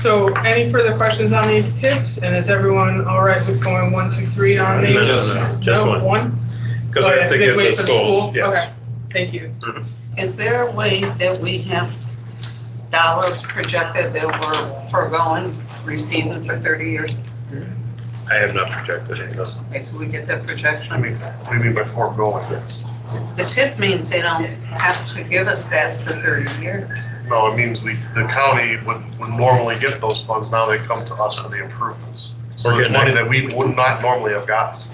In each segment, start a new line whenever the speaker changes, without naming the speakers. So any further questions on these tips? And is everyone all right with going one, two, three on
No, no,
these?
no, just
No,
one.
One?
Because
Oh,
we
yeah,
have to
they
give
wait
the
for
school, yes.
Okay, thank you.
Is there a way that we have dollars projected that we're foregoing receiving for 30 years?
I have not projected it, no.
If we get that
I
projection?
mean, what do you mean by foregoing?
The tip means they don't have to give us that for 30 years.
No, it means we, the county would, would normally get those funds, now they come to us for the improvements. So
We're
there's
getting
money that we would not normally have gotten.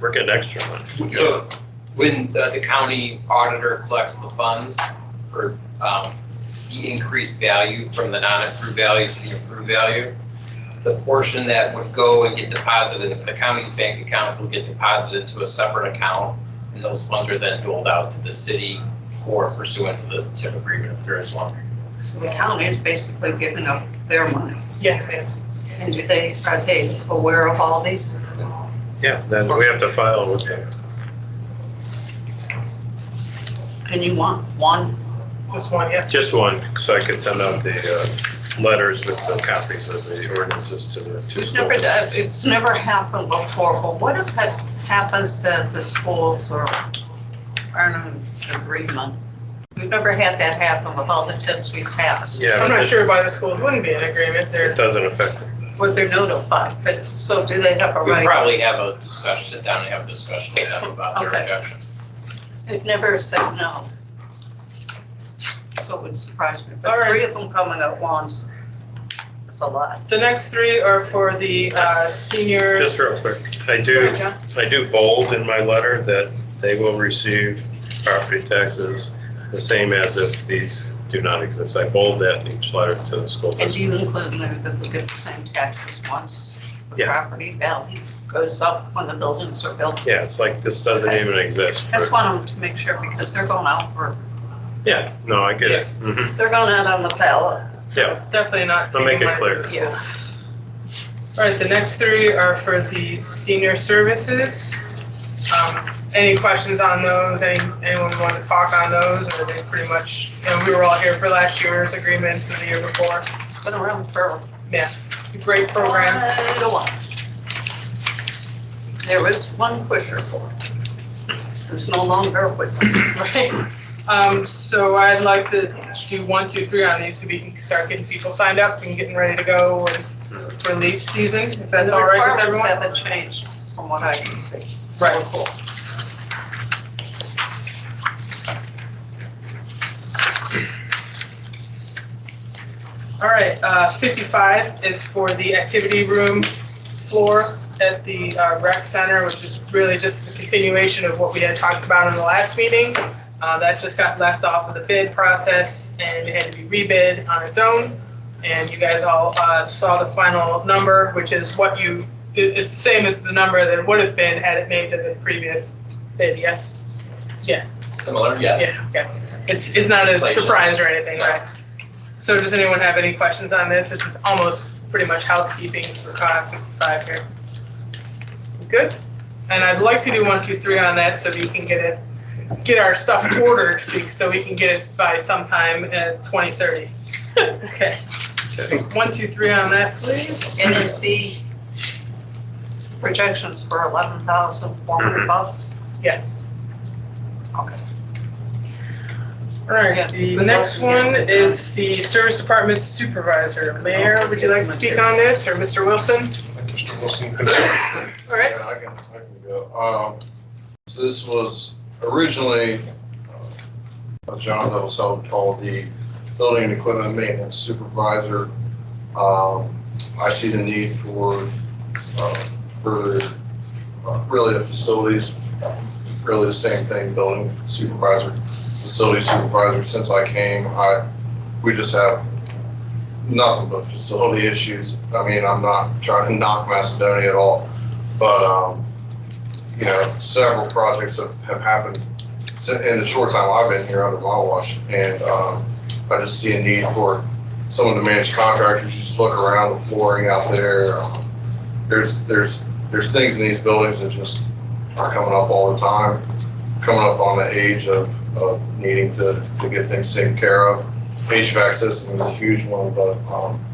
We're getting extra money.
So when uh, the, the county auditor collects the funds for, um, the increased value from the non-accrued value to the accrued value, the portion that would go and get deposited into the county's bank accounts will get deposited to a separate account. And those funds are then doled out to the city or pursuant to the TIP agreement if there is one.
So the county is basically giving up their money.
Yes, ma'am.
And do they, are they aware of all these?
Yeah, then we have to file with them.
And you want one?
Just one, yes.
Just one, so I could send out the uh, letters with the copies of the ordinances to the two
We've never,
schools.
done- it's never happened before, but what if it happens that the schools are, aren't in agreement? We've never had that happen with all the tips we passed,
Yeah,
I'm not
but it-
sure why the schools wouldn't be in agreement. They're
it doesn't affect,
where they're notified, but so do they have a
We
right?
probably have a discussion, sit down and have a discussion with them about their
Okay.
objection.
They've never said no. So it would surprise me,
All
but
right.
three of them coming at once, it's a lot.
The next three are for the uh, senior.
just real quick, I do, I do bold in my letter that they will receive property taxes the same as if these do not exist. I bold that in each letter to the school.
And
district.
do you include in there that we get the same taxes once the
Yeah.
property value goes up when the buildings are built?
Yeah, it's like, this doesn't even exist.
I just want them to make sure because they're going out for,
Yeah, no, I get it. Mhm.
they're going out on the ballot.
Yeah,
Definitely not.
I'll make
taking money
it clear.
from the schools. All right, the next three are for the senior services. Um, Any questions on those? Any Anyone want to talk on those? Or are they pretty much, you know, we were all here for last year's agreements and the year before.
It's been around for
It's a great program.
quite a while. There was one pusher for it. There's no longer a witness.
Right. Um, so I'd like to do one, two, three on these so we can start getting people signed up and getting ready to go when- for leaf season, if that's all right with
The requirements
everyone.
haven't changed from what I can see. So
Right.
cool.
All right, uh, fifty-five is for the activity room floor at the uh, rec center, which is really just the continuation of what we had talked about in the last meeting. Uh, that just got left off of the bid process and it had to be rebid on its own. And you guys all, uh, saw the final number, which is what you, it, it's the same as the number that would have been had it made to the previous bid, yes?
Similar, yes.
Yeah, okay. It's, it's not a
Inflation.
surprise or anything,
No.
right? So does anyone have any questions on that? This is almost pretty much housekeeping for COG 55 here. Good? And I'd like to do one, two, three on that so we can get it, get our stuff ordered be- so we can get it by sometime at 2030. Okay. One, two, three on that, please.
And is the projections for eleven thousand four hundred bucks?
Yes.
Okay.
All right,
Yeah.
the next one is the service department supervisor. Mayor, would you like to speak on this, or Mr. Wilson?
Mr. Wilson,
All right,
Yeah, I can, I can go. Um, so this was originally uh, a job that was held called the Building and Equipment Maintenance Supervisor. Um, I see the need for, uh, for uh, really the facilities, really the same thing, building supervisor, facility supervisor. Since I came, I, we just have nothing but facility issues. I mean, I'm not trying to knock Macedonia at all. But, um, you know, several projects have, have happened si- in the short time I've been here under my watch. And, um, I just see a need for someone to manage contractors. You just look around the flooring out there. um, There's, there's, there's things in these buildings that just are coming up all the time, coming up on the age of, of needing to, to get things taken care of. HVAC system is a huge one, but, um,